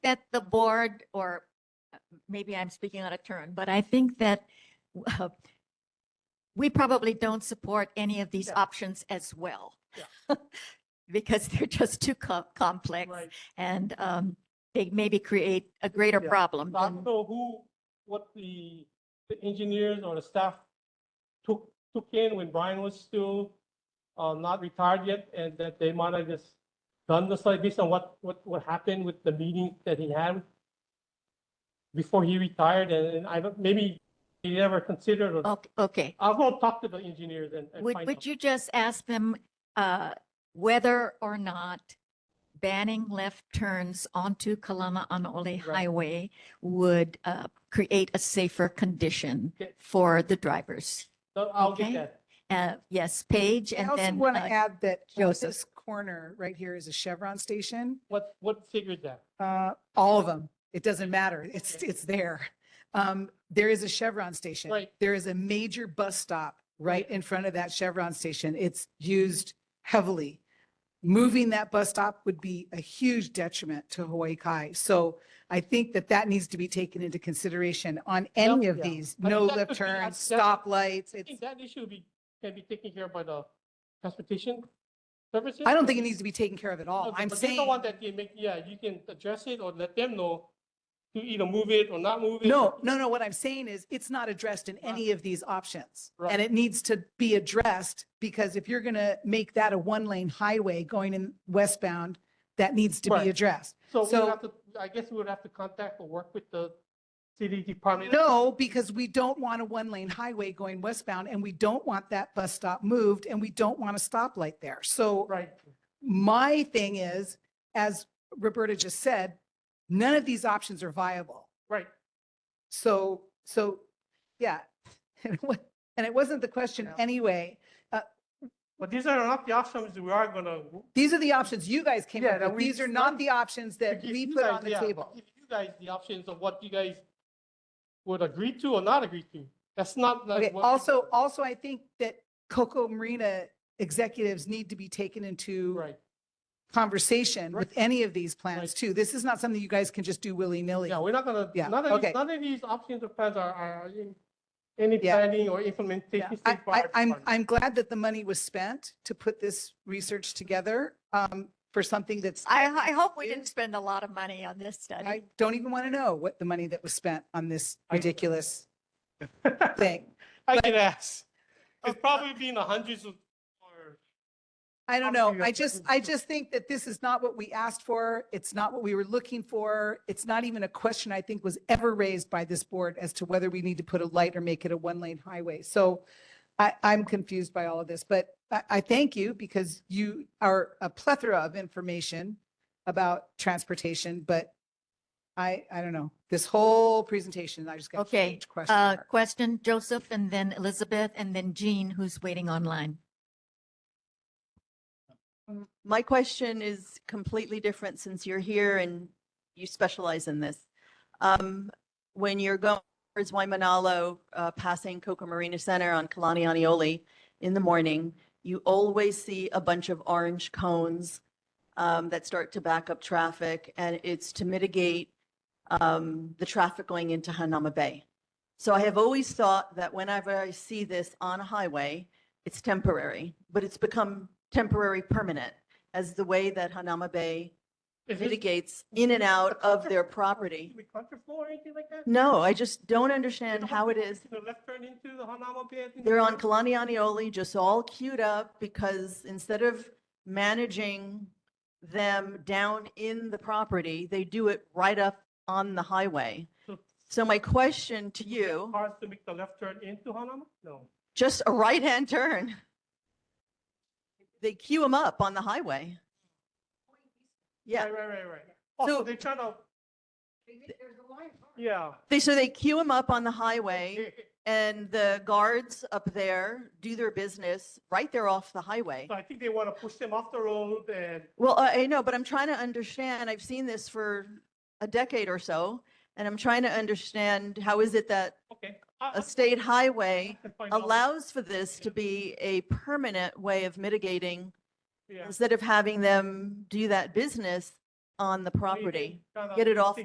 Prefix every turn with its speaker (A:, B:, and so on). A: that the board, or uh, maybe I'm speaking out of turn, but I think that uh, we probably don't support any of these
B: Yeah.
A: options as well. Because they're just too co- complex
B: Right.
A: and um, they maybe create a greater
B: Yeah.
A: problem.
B: So I
A: than-
B: don't know who, what the, the engineers or the staff took, took in when Brian was still, uh, not retired yet, and that they might have just done the study based on what, what, what happened with the meeting that he had before he retired, and and I, don't- maybe he never considered,
C: Oh.
B: or-
A: Ok- Okay.
B: I'll go talk to the engineers and. and
A: Would,
B: find out.
A: would you just ask them uh, whether or not banning left turns onto Kalama-Anaole
B: Right.
A: Highway would uh, create a safer condition
B: Okay.
A: for the drivers?
B: So I'll get
A: Okay.
B: that.
A: Uh, Yes, Paige
C: I
A: and
C: also
A: then.
C: want to
A: uh,
C: add that uh, this
A: Joseph.
C: corner right here is a Chevron station.
B: What, what figured that?
C: Uh, all of them. It doesn't matter. It's,
B: Okay.
C: it's there. Um, there is a Chevron station.
B: Right.
C: There is a major bus stop right in front of that Chevron station. It's used heavily. Moving that bus stop would be a huge detriment to Hawaii Kai. So I think that that needs to be taken into consideration on any of
B: yeah.
C: these,
B: I
C: no
B: think that
C: left
B: could be- I-
C: turns,
B: that-
C: stoplights.
B: I
C: It's,
B: think that issue be, can be taken care of by the transportation services?
C: I don't think it needs to be taken care of at all.
B: Okay,
C: Oh, I'm
B: but they're The one
C: saying.
B: that they make, yeah, you can address it or let them know to either move it or not move it.
C: No, no, no. What I'm saying is it's not addressed in any of these options.
B: Right.
C: And it needs to be addressed because if you're going to make that a one lane highway going in westbound, that needs to
B: Right.
C: be addressed.
B: So we
C: so-
B: would have to, I guess we would have to contact or work with the city department.
C: No, because we don't want a one lane highway going westbound and we don't want that bus stop moved and we don't want a stoplight there. So
B: Right,
C: my thing is, as Roberta just said, none of these options are viable.
B: right.
C: So, so, yeah. And it wa- and it wasn't the question
B: Yeah.
C: anyway.
B: But these are not the options we are gonna.
C: These are the options you guys came
B: Yeah,
C: up
B: that
C: with.
B: we-
C: These are not the options that
B: give
C: we
B: you
C: put
B: guys-
C: on the
B: yeah,
C: table.
B: Give you guys the options of what you guys would agree to or not agree to. That's not. like
C: Okay,
B: what-
C: also, also, I think that Coco Marina executives need to be taken into
B: Right,
C: conversation
B: Right.
C: with any of these
B: Right.
C: plans too. This is not something you guys can just do willy-nilly.
B: yeah, we're not gonna,
C: Yeah,
B: none of,
C: okay.
B: these- none of these options or plans are, are in any
C: Yeah.
B: planning or
C: Yeah.
B: implementation.
C: I,
B: stage by
C: I,
B: our
C: I'm,
B: department.
C: I'm glad that the money was spent to put this research together, um, for something that's,
A: I, I hope we
C: Yeah.
A: didn't spend a lot of money on this
C: I
A: study.
C: don't even want to know what the money that was spent on this
B: I-
C: ridiculous thing.
B: I can ask. It's probably been the hundreds of, or,
C: I don't
B: Obviously,
C: know.
B: you're
C: I
B: not
C: just,
B: looking
C: I
B: for-
C: just think that this is not what we asked for. It's not what we were looking for. It's not even a question I think was ever raised by this board as to whether we need to put a light or make it a one-lane highway. So I, I'm confused by all of this, but I, I thank you because you are a plethora of information about transportation, but I, I don't know. This whole presentation, I just got a
A: Okay,
C: huge question.
A: Uh,
C: mark.
A: question, Joseph, and then Elizabeth, and then Jean, who's waiting online.
D: M- My question is completely different since you're here and you specialize in this. Um, When you're going towards Waimanalo, uh, passing Coco Marina Center on Kalani Aniole in the morning, you always see a bunch of orange cones um, that start to back up traffic, and it's to mitigate um, the traffic going into Hanama Bay. So I have always thought that whenever I see this on a highway, it's temporary, but it's become temporary permanent as the way that Hanama Bay
B: is this
D: mitigates in and out of their property.
B: with contraflow or anything like that?
D: No, I just don't
B: They
D: understand
B: don't
D: how
B: have
D: it
B: to
D: is.
B: take The left turn into the Hanama Bay. I think
D: They're
B: it
D: on
B: is.
D: Kalani Aniole, just all queued up because instead of managing them down in the property, they do it right up on the highway.
B: So-
D: So my question to
B: Do they have
D: you,
B: Cars to make the left turn into Hanama? No.
D: just a right-hand turn. They queue them up on the highway. Yeah.
B: Right, right, right, right. Oh,
D: So-
B: so they're trying to. Yeah.
D: They, so they queue them up on the highway and the guards up there do their business right there off the highway.
B: So I think they want to push them off the road and
D: Well, I I know, but I'm trying to understand, I've seen this for a decade or so, and I'm trying to understand how is it that
B: okay. I-
D: a
B: I-
D: state
B: I
D: highway
B: can find out.
D: allows for this to be a permanent way of mitigating
B: Yeah.
D: instead of having them do that business on the property.
B: Kind of
D: Get it off